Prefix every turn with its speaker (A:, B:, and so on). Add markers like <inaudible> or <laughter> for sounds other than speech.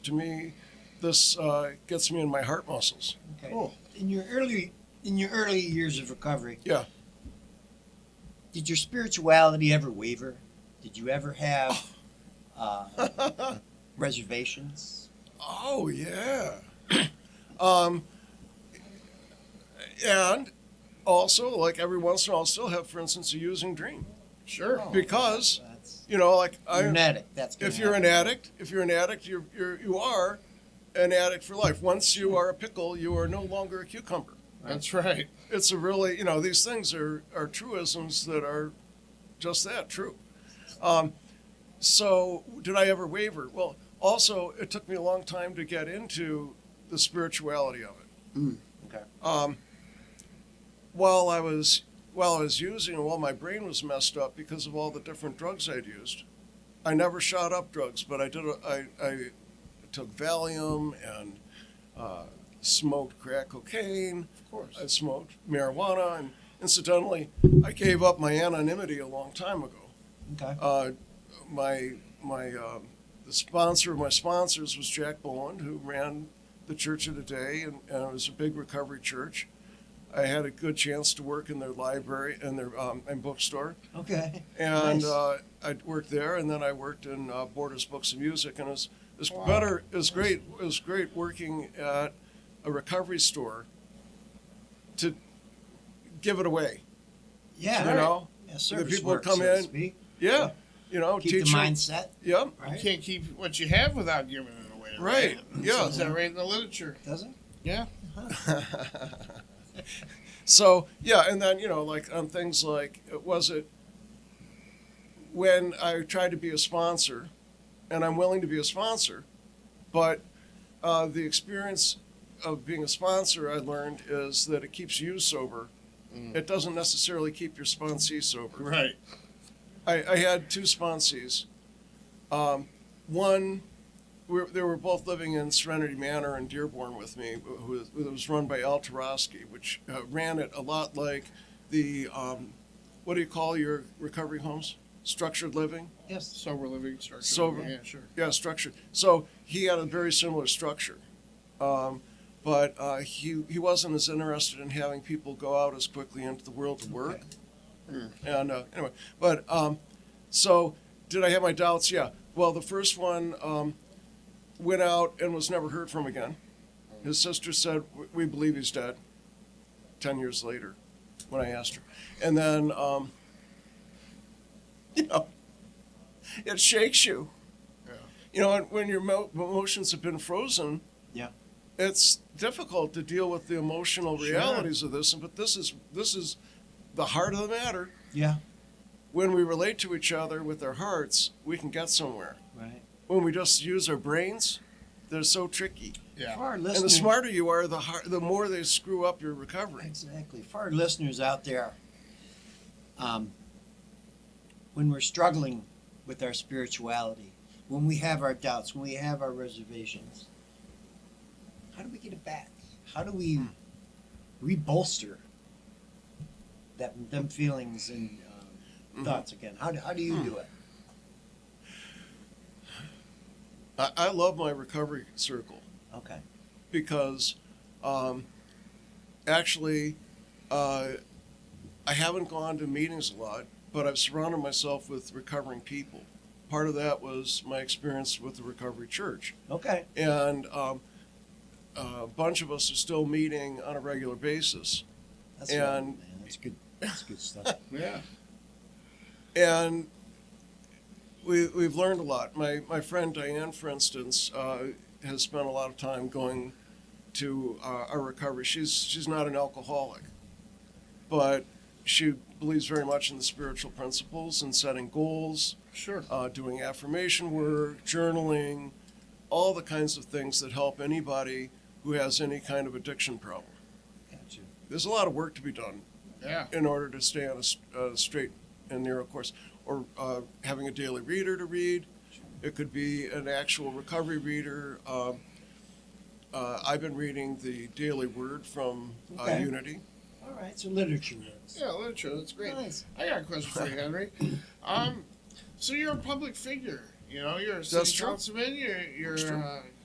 A: to me, this uh, gets me in my heart
B: <laughs>
A: muscles.
B: Okay.
A: Cool.
B: Oh, In your early in your early years of recovery,
A: Yeah.
B: did your spirituality ever waver? Did you ever have
A: <sighs>
B: uh, reservations?
A: Oh
B: <clears throat>
A: yeah. um, and also, like every once in a while, I'll still have, for instance, a using dream. Oh.
C: Sure.
A: Because
B: Oh, That's,
A: you know, like I,
B: you're an addict. That's gonna
A: if you're an
B: happen.
A: addict, if you're an addict, you're, you're you are an addict for life. Once you are a pickle, you are no longer a cucumber.
C: That's right.
A: It's a really you know these things are are truisms that are just that true. Um, so did I ever waver? Well, also it took me a long time to get into the spirituality of it.
B: Okay.
A: um, while I was while I was using and while my brain was messed up because of all the different drugs I'd used, I never shot up drugs, but I did. A, I, I took Valium and uh, smoked crack cocaine.
C: Of course.
A: I smoked marijuana, and incidentally, I gave up my anonymity a long time ago.
B: Okay.
A: Uh, my my um the sponsor of my sponsors was Jack Boland, who ran the Church of the Day, and, and it was a big recovery church. I had a good chance to work in their library and their um, and bookstore,
B: Okay.
A: and
B: Nice.
A: uh, I worked there, and then I worked in uh, Borders Books and Music, and it was, it was
C: Wow.
A: better. It was great. It was great working at a recovery store to give it away.
B: <laughs> Yeah.
A: You know,
B: Yeah, service
A: people
B: work,
A: come
B: so to
A: in,
B: speak.
A: yeah, you know,
B: Keep
A: teach
B: the
A: them-
B: mindset.
A: Yep.
C: You
B: Right.
C: can't keep what you have without giving it away.
A: Right. Yeah.
C: Is that right in the literature?
B: Does it?
C: Yeah.
A: so yeah, and then you know, like on things like it was it when I tried to be a sponsor, and I'm willing to be a sponsor, but uh, the experience of being a sponsor I learned is that it keeps you sober.
C: Mm.
A: It doesn't necessarily keep your sponsee sober.
C: Right.
A: I, I had two sponsees. Um, one, we they were both living in Serenity Manor in Dearborn with me, who was, who was run by Al Tarosky, which uh, ran it a lot like the, um, what do you call your recovery homes? Structured living?
B: Yes.
C: Sober living structure.
A: Sober.
C: Yeah, sure.
A: Yeah, structured. So he had a very similar structure. Um, but uh, he, he wasn't as interested in having people go out as quickly into the world to work. And uh, anyway, but um, so did I have my doubts? Yeah. Well, the first one um, went out and was never heard from again. His sister said, "We- "We believe he's dead." Ten years later, when I asked her, and then um, <laughs> you know, it shakes you.
C: Yeah.
A: You know, and when your mo- emotions have been frozen.
B: Yeah.
A: It's difficult to deal with the emotional
C: Sure.
A: realities of this, but this is this is the heart of the matter
B: Yeah.
A: when we relate to each other with our hearts, we can get somewhere.
B: Right.
A: When we just use our brains, they're so tricky.
B: For
C: Yeah.
B: our
A: And the
B: listeners,
A: smarter you are, the har the more they screw up your recovery.
B: Exactly. For our listeners out there, um, when we're struggling with our spirituality, when we have our doubts, when we have our reservations, how do we get it back? How do we rebolster that them feelings and um,
A: Mhm.
B: thoughts again? How do, how do you do it?
A: I, I love my recovery circle
B: Okay.
A: because um, actually, uh, I haven't gone to meetings a lot, but I've surrounded myself with recovering people. Part of that was my experience with the Recovery Church.
B: Okay.
A: and um, a bunch of us are still meeting on a regular basis.
B: That's right,
A: And-
B: man. That's good. That's good stuff.
C: Yeah.
A: And we, we've learned a lot. My, my friend Diane, for instance, uh, has spent a lot of time going to uh, our recovery. She's, she's not an alcoholic, but she believes very much in the spiritual principles and setting goals,
C: Sure.
A: uh, doing affirmation work, journaling, all the kinds of things that help anybody who has any kind of addiction problem.
B: Gotcha.
A: there's a lot of work to be done
C: Yeah.
A: in order to stay on a, s- a straight and narrow course, or uh, having a daily reader to read. It could be an actual recovery reader. Um, uh, I've been reading the Daily Word from uh,
B: Okay.
A: Unity.
B: All right. So literature works.
C: Yeah, literature. That's great.
B: Nice.
C: I got a question <laughs> for you, Henry. Um, so you're a public figure. You know, you're a city
A: That's true.
C: councilman. You're,
A: That's
C: you're
A: true.
C: uh,